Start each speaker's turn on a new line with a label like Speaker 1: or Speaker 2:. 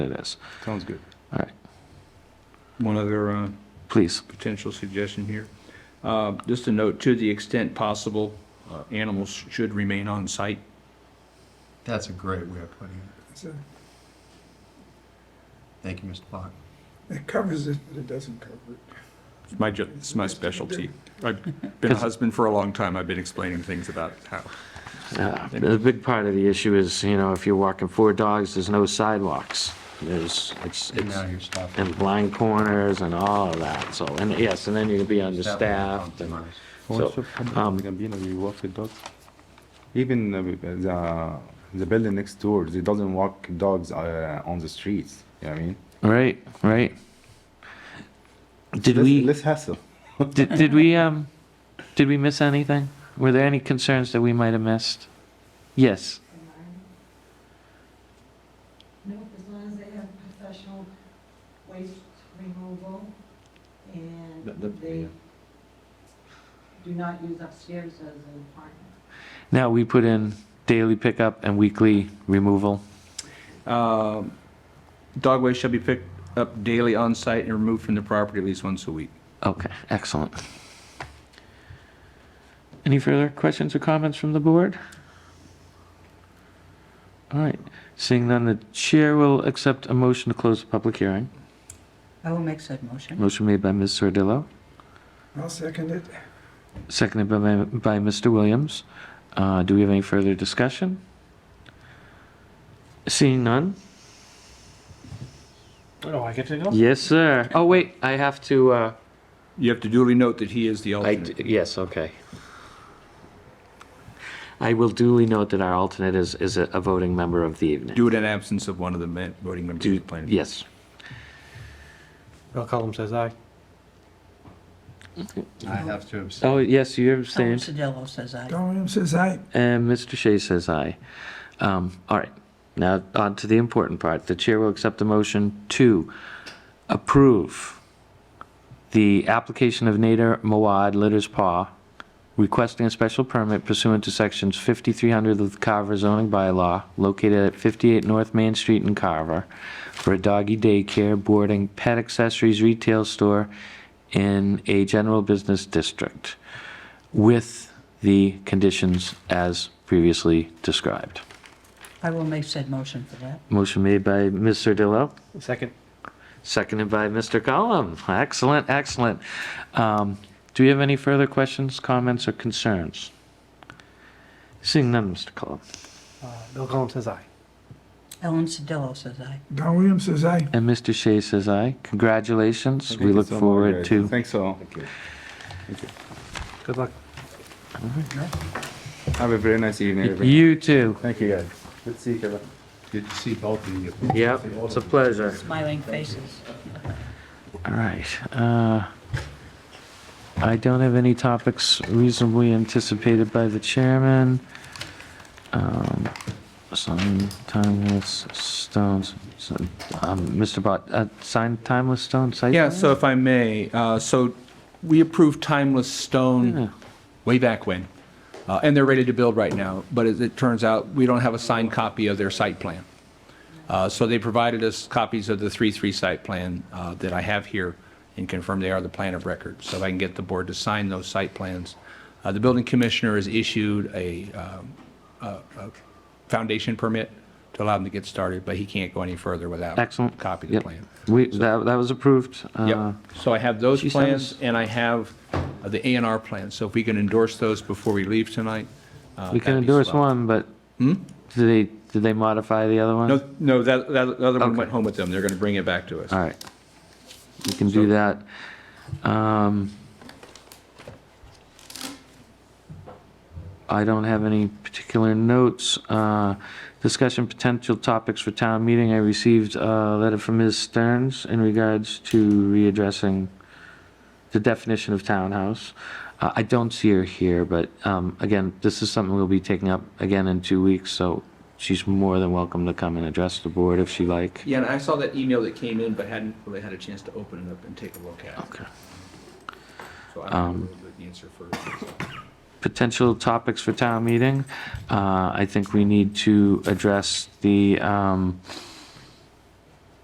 Speaker 1: it is.
Speaker 2: Sounds good.
Speaker 1: All right,
Speaker 2: One other uh,
Speaker 1: please.
Speaker 2: potential suggestion here. Uh, Just a note, to the extent possible, uh, animals should remain on site.
Speaker 3: That's a great way of putting it.
Speaker 4: So
Speaker 3: Thank you, Mr. Block.
Speaker 4: It covers it, but it doesn't cover it.
Speaker 2: It's my, ju- it's my specialty. I've been a husband for a long time, I've been explaining things about how.
Speaker 1: Uh, The big part of the issue is, you know, if you're walking four dogs, there's no sidewalks. There's, it's,
Speaker 3: And
Speaker 1: it's,
Speaker 3: now you're stopping.
Speaker 1: and blind corners and all of that, so, and yes, and then you're gonna be understaffed and,
Speaker 3: Compromise.
Speaker 1: so,
Speaker 5: Most of
Speaker 1: um,
Speaker 5: Gambino, we walk the dogs. Even uh, the, the building next door, they doesn't walk dogs uh, on the streets. You know what I mean?
Speaker 1: right, right. Did
Speaker 5: less,
Speaker 1: we,
Speaker 5: less hassle?
Speaker 1: did, did we, um, did we miss anything? Were there any concerns that we might have missed? Yes,
Speaker 6: Nope, as long as they have professional waste removal and
Speaker 5: That- that-
Speaker 6: they
Speaker 5: yeah.
Speaker 6: do not use upstairs as an apartment.
Speaker 1: now we put in daily pickup and weekly removal.
Speaker 2: Um, Dog waste shall be picked up daily on site and removed from the property at least once a week.
Speaker 1: Okay, excellent. Any further questions or comments from the board? All right, seeing none, the chair will accept a motion to close the public hearing.
Speaker 7: I will make said motion.
Speaker 1: Motion made by Ms. Sordillo,
Speaker 4: I'll second it.
Speaker 1: seconded by, by Mr. Williams. Uh, do we have any further discussion? Seeing none?
Speaker 8: Oh, I get to go?
Speaker 1: Yes, sir. Oh, wait, I have to, uh,
Speaker 2: You have to duly note that he is the
Speaker 1: I
Speaker 2: alternate.
Speaker 1: d yes, okay. I will duly note that our alternate is, is a a voting member of the evening.
Speaker 2: Do it in absence of one of the men- voting members of the planning. board.
Speaker 1: Yes.
Speaker 8: Bill Cullum says aye.
Speaker 3: I have to abstain.
Speaker 1: Oh, yes, you're
Speaker 7: Tom
Speaker 1: abstained.
Speaker 7: Sedillo says aye.
Speaker 4: Don Williams says aye.
Speaker 1: And Mr. Shea says aye. Um, all right, now on to the important part. The chair will accept the motion to approve the application of Nader Mawad Litter's Paw requesting a special permit pursuant to sections 5300 of the Carver zoning bylaw located at 58 North Main Street in Carver for a doggy daycare, boarding, pet accessories retail store in a general business district with the conditions as previously described.
Speaker 7: I will make said motion for that.
Speaker 1: Motion made by Mr. Dillo,
Speaker 8: Second.
Speaker 1: seconded by Mr. Collum. Excellent, excellent. Um, Do we have any further questions, comments, or concerns? Seeing none, Mr. Collum.
Speaker 8: Uh, Bill Cullum says aye.
Speaker 7: Ellen Sedillo says aye.
Speaker 4: Don Williams says aye.
Speaker 1: And Mr. Shea says aye. Congratulations. We
Speaker 5: Thank you
Speaker 1: look
Speaker 5: so much,
Speaker 1: forward
Speaker 5: guys.
Speaker 1: to.
Speaker 5: Thanks so.
Speaker 8: Good luck.
Speaker 5: Have a very nice evening. everyone.
Speaker 1: You too.
Speaker 5: Thank you, guys. Good to see you, Kevin.
Speaker 3: Good to see both of you.
Speaker 1: Yep, it's a pleasure.
Speaker 7: Smiling faces.
Speaker 1: All right. uh, I don't have any topics reasonably anticipated by the chairman. Um, Sign timeless stones, so, um, Mr. Bott, uh, sign timeless stone site?
Speaker 2: Yeah,
Speaker 1: plan?
Speaker 2: so if I may, uh, so we approved Timeless
Speaker 1: Yeah.
Speaker 2: Stone way back when, uh, and they're ready to build right now, but as it turns out, we don't have a signed copy of their site plan. Uh, So they provided us copies of the 3-3 site plan uh, that I have here and confirm they are the plan of record, so if I can get the board to sign those site plans. Uh, The building commissioner has issued a um, a- a foundation permit to allow them to get started, but he can't go any further without
Speaker 1: Excellent.
Speaker 2: copy of the
Speaker 1: Yep.
Speaker 2: plan.
Speaker 1: We, that, that was approved. uh,
Speaker 2: Yep, so I have those
Speaker 1: she
Speaker 2: plans,
Speaker 1: sounds-
Speaker 2: and I have uh, the A and R plans, so if we can endorse those before we leave tonight. uh,
Speaker 1: We can
Speaker 2: that'd be
Speaker 1: endorse
Speaker 2: swell.
Speaker 1: one, but did they, did they modify the other one?
Speaker 2: No, no, that, that the other one
Speaker 1: Okay.
Speaker 2: went home with them, they're gonna bring it back to us.
Speaker 1: All right. You can do that. Um, I don't have any particular notes. Uh, Discussion potential topics for town meeting. I received a letter from Ms. Stearns in regards to readdressing the definition of townhouse. Uh, I don't see her here, but um, again, this is something we'll be taking up again in two weeks, so she's more than welcome to come and address the board if she like.
Speaker 2: Yeah, and I saw that email that came in, but hadn't really had a chance to open it up and take a look at it,
Speaker 1: Okay. Um,
Speaker 2: so I don't know the answer first.
Speaker 1: potential topics for town meeting. Uh, I think we need to address the um,